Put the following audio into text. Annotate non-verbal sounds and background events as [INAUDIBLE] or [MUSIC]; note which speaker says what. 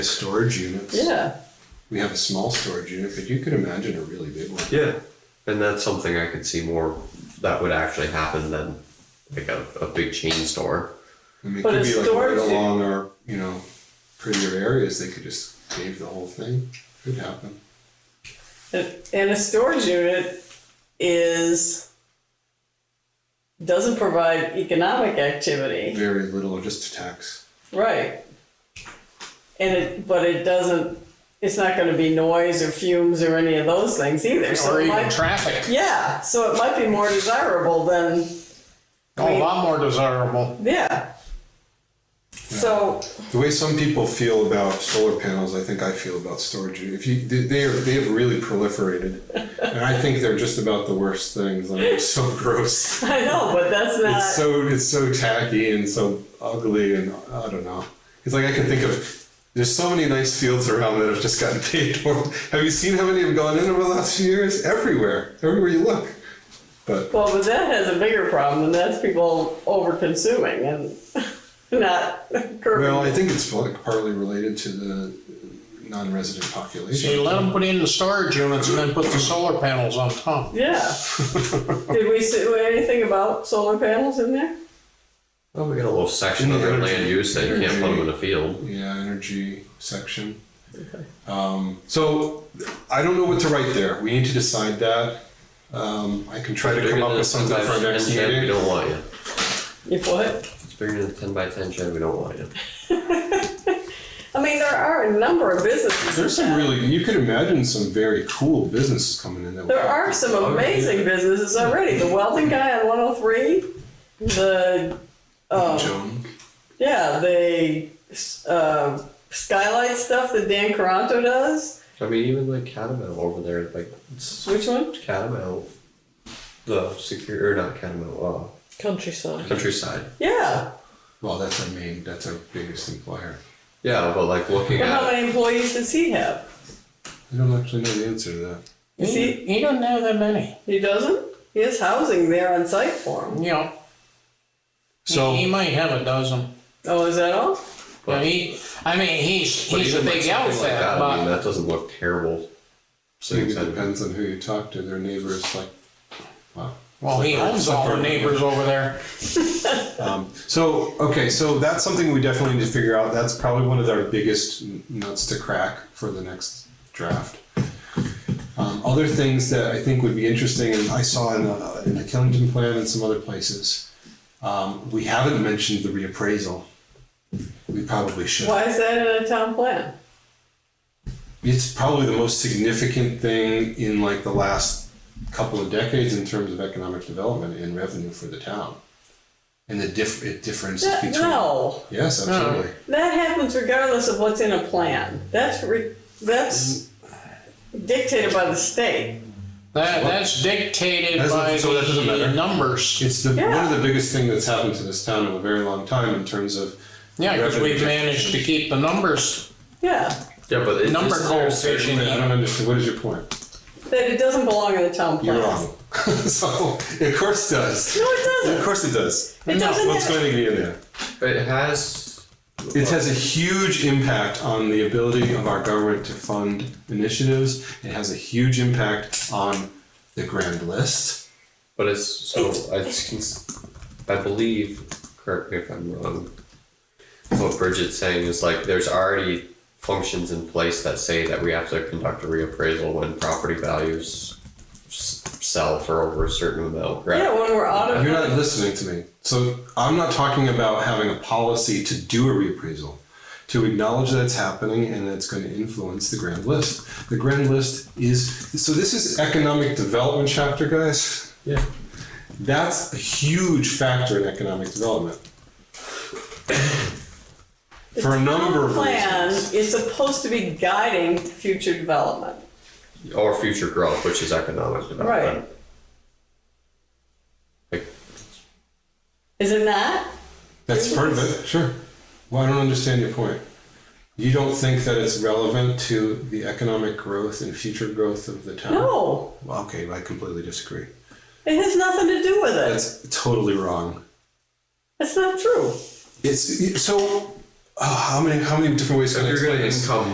Speaker 1: storage units.
Speaker 2: Yeah.
Speaker 1: We have a small storage unit, but you could imagine a really big one.
Speaker 3: Yeah, and that's something I could see more that would actually happen than like a, a big chain store.
Speaker 1: I mean, it
Speaker 2: But
Speaker 1: could
Speaker 2: a
Speaker 1: be like right
Speaker 2: storage unit-
Speaker 1: along our, you know, prettier areas. They could just cave the whole thing. Could happen.
Speaker 2: And a storage unit is, doesn't provide economic activity.
Speaker 1: Very little, just a tax.
Speaker 2: Right. And it, but it doesn't, it's not gonna be noise or fumes or any of those things either, so
Speaker 4: or
Speaker 2: it
Speaker 4: even
Speaker 2: might,
Speaker 4: traffic.
Speaker 2: yeah, so it might be more desirable than,
Speaker 4: A lot more desirable.
Speaker 2: yeah. So,
Speaker 1: The way some people feel about solar panels, I think I feel about storage. unit. If you, they they are, they have really proliferated, and I think they're just about the worst things. Like it's so [LAUGHS] gross.
Speaker 2: I know, but that's
Speaker 1: It's
Speaker 2: not,
Speaker 1: so it's so tacky and so ugly, and I don't know. It's like I can think of. There's so many nice fields around that have just gotten [LAUGHS] paid for. Have you seen how many have gone in over the last few years? Everywhere, everywhere you look. But
Speaker 2: well, but that has a bigger problem, and that's people over consuming and [LAUGHS] not curbing.
Speaker 1: well, I think it's like partly related to the non-resident population.
Speaker 4: So you let them put in the storage units and then put the solar panels on
Speaker 1: [LAUGHS]
Speaker 4: top.
Speaker 2: Yeah. Did we say anything about solar panels in there?
Speaker 3: Oh, we got a little section of their
Speaker 1: Energy.
Speaker 3: land use that you can't put them in a field.
Speaker 1: Yeah, energy section. Um, so I don't know what to write there. We need to decide that. Um, I can try to come up with something for our next
Speaker 3: ten shed, we
Speaker 1: meeting.
Speaker 3: don't want you.
Speaker 2: If what?
Speaker 3: It's bigger than a ten by ten shed. We don't want you.
Speaker 2: I mean, there are a number of businesses.
Speaker 1: There's some really, you could imagine some very cool businesses coming in that.
Speaker 2: There are
Speaker 1: Oh,
Speaker 2: some amazing businesses already. The welding guy on 103, the, uh,
Speaker 1: Joan.
Speaker 2: yeah, the uh, skylight stuff that Dan Caranto does.
Speaker 3: I mean, even like Catamount over there, like it's
Speaker 2: Which one?
Speaker 3: Catamount, the secure or not Catamount, uh,
Speaker 5: Countryside.
Speaker 3: countryside.
Speaker 2: Yeah.
Speaker 1: Well, that's our main, that's our biggest employer.
Speaker 3: Yeah, but like looking
Speaker 2: But how
Speaker 3: at
Speaker 2: many employees does he have?
Speaker 1: I don't actually know the answer to that.
Speaker 4: He,
Speaker 2: Is he,
Speaker 4: he doesn't have that many.
Speaker 2: he doesn't? He has housing there on site for him.
Speaker 4: You know,
Speaker 1: So
Speaker 4: he might have a dozen.
Speaker 2: Oh, is that all?
Speaker 4: But he, I mean, he's
Speaker 3: but
Speaker 4: he's a
Speaker 3: even, like,
Speaker 4: big
Speaker 3: something
Speaker 4: outfit,
Speaker 3: like that, I mean,
Speaker 4: but
Speaker 3: that doesn't look terrible. So
Speaker 1: maybe it depends on who you talk to. Their neighbors, like, wow.
Speaker 4: well, he owns all the neighbors over there.
Speaker 1: Um, So okay, so that's something we definitely need to figure out. That's probably one of our biggest n- nuts to crack for the next draft. Um, other things that I think would be interesting, and I saw in the, in the Killington plan and some other places, um, we haven't mentioned the reappraisal. We probably should.
Speaker 2: Why is that in a town plan?
Speaker 1: It's probably the most significant thing in like the last couple of decades in terms of economic development and revenue for the town, and the diff it differences
Speaker 2: That-
Speaker 1: between.
Speaker 2: no,
Speaker 1: Yes, absolutely.
Speaker 2: that happens regardless of what's in a plan. That's re, that's dictated by the state.
Speaker 4: That that's dictated
Speaker 1: That's not-
Speaker 4: by
Speaker 1: so that doesn't matter.
Speaker 4: the numbers.
Speaker 1: It's the,
Speaker 2: Yeah.
Speaker 1: one of the biggest thing that's happened to this town in a very long time in terms of
Speaker 4: Yeah, because
Speaker 1: revenue
Speaker 4: we've managed to keep the numbers.
Speaker 2: Yeah,
Speaker 3: Yeah, but it,
Speaker 4: Number
Speaker 3: it's-
Speaker 4: coefficient.
Speaker 1: I don't understand. What is your point?
Speaker 2: that it doesn't belong in the town plan.
Speaker 1: You're wrong. [LAUGHS] so of course does.
Speaker 2: No, it
Speaker 1: Of
Speaker 2: doesn't.
Speaker 1: course it does.
Speaker 2: It doesn't.
Speaker 1: What's
Speaker 2: have-
Speaker 1: going to be in there?
Speaker 3: It has.
Speaker 1: It has a huge impact on the ability of our government to fund initiatives. It has a huge impact on the grand list.
Speaker 3: But it's so I, s- I believe. Correct me if I'm wrong. What Bridget's saying is like there's already functions in place that say that we have to conduct a reappraisal when property values s- sell for over a certain amount. Right?
Speaker 2: yeah, when we're out
Speaker 1: You're
Speaker 2: of
Speaker 1: not listening to me. So I'm not talking about having a policy to do a reappraisal, to acknowledge that it's happening and that it's going to influence the grand list. The grand list is so this is economic development chapter, guys.
Speaker 3: Yeah.
Speaker 1: That's a huge factor in economic development. For a number of
Speaker 2: plan
Speaker 1: reasons.
Speaker 2: is supposed to be guiding future development.
Speaker 3: Or future growth, which is economic development. Like,
Speaker 2: Is it not?
Speaker 1: That's part of it, sure. Well, I don't understand your point. You don't think that it's relevant to the economic growth and future growth of the town?
Speaker 2: No,
Speaker 1: Well, Okay, I completely disagree.
Speaker 2: it has nothing to do with it.
Speaker 1: That's totally wrong.
Speaker 2: That's not true.
Speaker 1: It's so oh, how many how many different ways
Speaker 3: So
Speaker 1: can I
Speaker 3: if you're
Speaker 1: explain
Speaker 3: gonna
Speaker 1: this?
Speaker 3: income